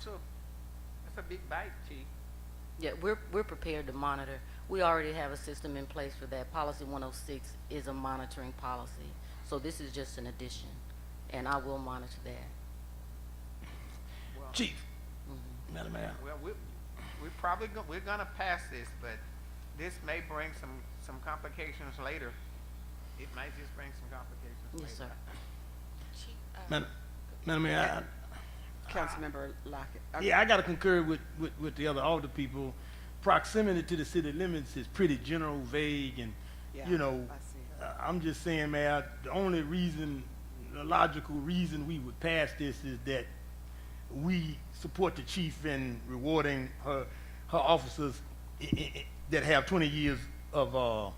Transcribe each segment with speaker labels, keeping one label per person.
Speaker 1: too. That's a big bite, chief.
Speaker 2: Yeah, we're, we're prepared to monitor. We already have a system in place for that. Policy 106 is a monitoring policy. So this is just an addition, and I will monitor that.
Speaker 1: Well,
Speaker 3: Chief, Madam Mayor,
Speaker 1: well, we, we probably, go- we're gonna pass this, but this may bring some, some complications later. It might just bring some complications later.
Speaker 2: Yes, sir.
Speaker 3: Madam, Madam Mayor,
Speaker 4: Councilmember Lockett.
Speaker 3: I,
Speaker 4: I-
Speaker 3: yeah, I gotta concur with, with, with the other alder people. Proximity to the city limits is pretty general, vague, and,
Speaker 4: yeah,
Speaker 3: you know,
Speaker 4: I see.
Speaker 3: uh, I'm just saying, Mayor, the only reason, the logical reason we would pass this is that we support the chief in rewarding her, her officers i- i- i- that have twenty years of, uh, o-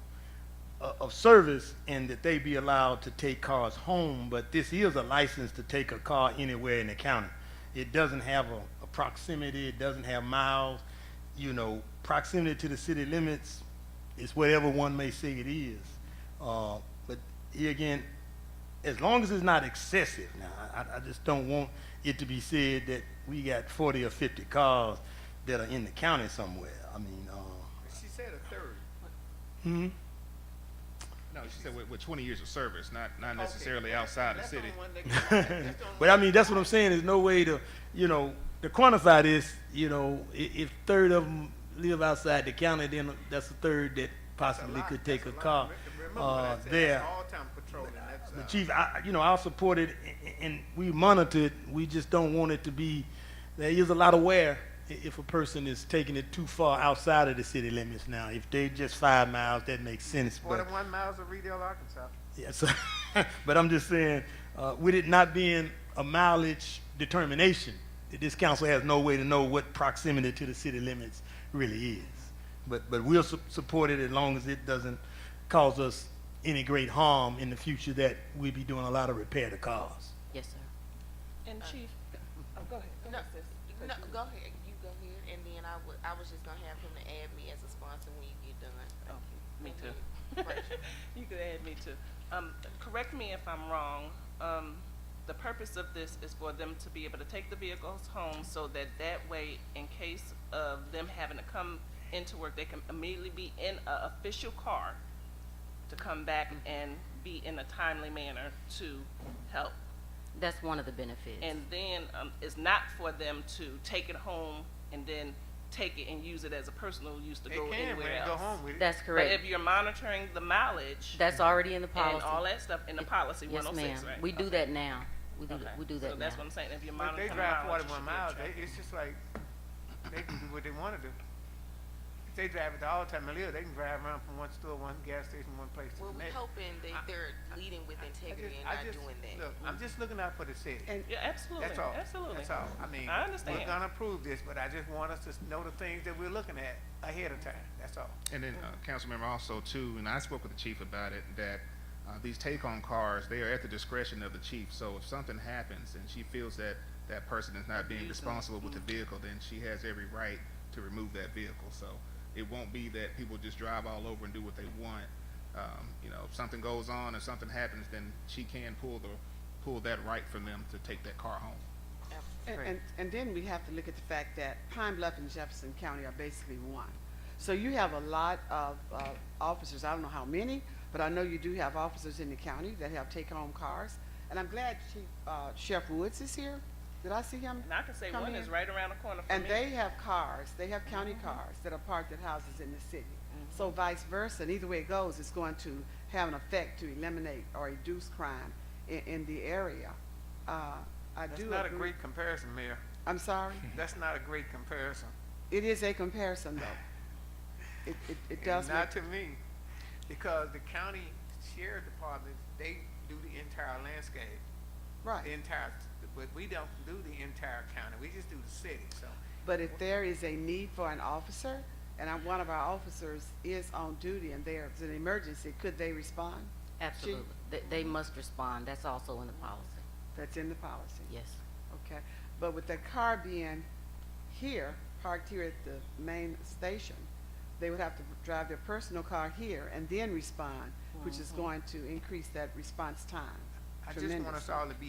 Speaker 3: of service and that they be allowed to take cars home, but this is a license to take a car anywhere in the county. It doesn't have a, a proximity, it doesn't have miles, you know, proximity to the city limits is whatever one may say it is. Uh, but here again, as long as it's not excessive now, I, I just don't want it to be said that we got forty or fifty cars that are in the county somewhere. I mean, uh,
Speaker 1: She said a third.
Speaker 3: hmm?
Speaker 5: No, she said with, with 20 years of service, not not
Speaker 1: Okay.
Speaker 5: necessarily outside the
Speaker 1: That's
Speaker 5: city.
Speaker 1: on one they- that's on
Speaker 3: But I mean, that's what I'm saying. There's no way to, you know, to quantify this. You know, if, if third of them live outside the county, then that's a third that
Speaker 1: That's a
Speaker 3: possibly
Speaker 1: lot.
Speaker 3: could take a
Speaker 1: That's lot.
Speaker 3: car
Speaker 1: Re- remember what I
Speaker 3: uh,
Speaker 1: said, that's
Speaker 3: there.
Speaker 1: all-time patrolling. That's,
Speaker 3: The
Speaker 1: uh,
Speaker 3: chief, I, you know, I'll support it, a- a- and we monitor it. We just don't want it to be. There is a lot of wear i- if a person is taking it too far outside of the city limits. Now, if they just five miles, that makes sense. But
Speaker 1: Forty-one miles of Reedale, Arkansas.
Speaker 3: Yes, but I'm just saying, uh, with it not being a mileage determination, that this council has no way to know what proximity to the city limits really is. But, but we'll su- support it as long as it doesn't cause us any great harm in the future that we'll be doing a lot of repair to cars.
Speaker 2: Yes, sir.
Speaker 6: And Chief, oh, go ahead, go
Speaker 7: Uh, No,
Speaker 6: ahead, sis.
Speaker 7: no, go ahead, you go ahead, and then I would, I was just gonna have him to add me as a sponsor when you get done.
Speaker 6: Oh, Me
Speaker 7: Thank
Speaker 6: too.
Speaker 7: you.
Speaker 6: You could add me too. Um, correct me if I'm wrong, um, the purpose of this is for them to be able to take the vehicles home so that that way, in case of them having to come into work, they can immediately be in a official car to come back and be in a timely manner to help
Speaker 2: That's one of the benefits.
Speaker 6: and then um, it's not for them to take it home and then take it and use it as a personal use to
Speaker 1: They
Speaker 6: go
Speaker 1: can, when
Speaker 6: anywhere
Speaker 1: they
Speaker 6: else.
Speaker 1: go home with it.
Speaker 2: That's
Speaker 6: But
Speaker 2: correct.
Speaker 6: if you're monitoring the mileage
Speaker 2: That's already in the
Speaker 6: and
Speaker 2: policy.
Speaker 6: all that stuff in the policy,
Speaker 2: Yes,
Speaker 6: 106,
Speaker 2: ma'am.
Speaker 6: right?
Speaker 2: We do
Speaker 6: Okay.
Speaker 2: that now. We do,
Speaker 6: Okay.
Speaker 2: we do that
Speaker 6: So
Speaker 2: now.
Speaker 6: that's what I'm saying. If you're
Speaker 1: But they
Speaker 6: monitoring the mileage,
Speaker 1: drive
Speaker 6: you should
Speaker 1: forty-one
Speaker 6: be in
Speaker 1: miles,
Speaker 6: trouble.
Speaker 1: they, it's just like, they can do what they wanna do. If they drive it all the time, they live, they can drive around from one store, one gas station, one place to
Speaker 7: Well,
Speaker 1: the
Speaker 7: we're
Speaker 1: next.
Speaker 7: hoping that they're leading with
Speaker 1: I just-
Speaker 7: integrity and
Speaker 1: I
Speaker 7: not
Speaker 1: just-
Speaker 7: doing that.
Speaker 1: Look, I'm just looking out for the city.
Speaker 4: And-
Speaker 6: Yeah, absolutely,
Speaker 1: That's all.
Speaker 6: absolutely.
Speaker 1: That's all. I mean,
Speaker 6: I understand.
Speaker 1: we're gonna approve this, but I just want us to s- know the things that we're looking at ahead of time. That's all.
Speaker 5: And then uh, council member also too, and I spoke with the chief about it that uh, these take-home cars they are at the discretion of the chief. So if something happens and she feels that that person is not being responsible with the
Speaker 1: Mm-hmm.
Speaker 5: vehicle, then she has every right to remove that vehicle. So it won't be that people just drive all over and do what they want. Um, you know, if something goes on, if something happens, then she can pull the pull that right from them to take that car home.
Speaker 4: And, and, and then we have to look at the fact that Pine Bluff and Jefferson County are basically one. So you have a lot of, uh, officers, I don't know how many, but I know you do have officers in the county that have take-home cars. And I'm glad Chief, uh, Sheriff Woods is here. Did I see him?
Speaker 6: And I can say
Speaker 4: Come
Speaker 6: one is
Speaker 4: here.
Speaker 6: right around the corner from
Speaker 4: And
Speaker 6: me.
Speaker 4: they have cars, they have county
Speaker 1: Mm-hmm.
Speaker 4: cars that are parked at houses in the city. So vice versa, and either way it goes, it's going to have an effect to eliminate or reduce crime in, in the area. Uh, I
Speaker 1: That's
Speaker 4: do
Speaker 1: not a
Speaker 4: agree-
Speaker 1: great comparison, Mayor.
Speaker 4: I'm sorry?
Speaker 1: That's not a great comparison.
Speaker 4: It is a comparison, though. It, it, it
Speaker 1: And
Speaker 4: does make,
Speaker 1: Not to me, because the county sheriff department, they do the entire landscape. the
Speaker 4: right.
Speaker 1: entire, but we don't do the entire county, we just do the city, so.
Speaker 4: But if there is a need for an officer, and I'm, one of our officers is on duty and there's an emergency, could they respond?
Speaker 2: Absolutely. They, they must respond. That's also in the policy.
Speaker 4: That's in the policy,
Speaker 2: Yes.
Speaker 4: okay? But with the car being here, parked here at the main station, they would have to drive their personal car here and then respond, which is going to increase that response time
Speaker 1: I just want us
Speaker 4: tremendously.
Speaker 1: all to be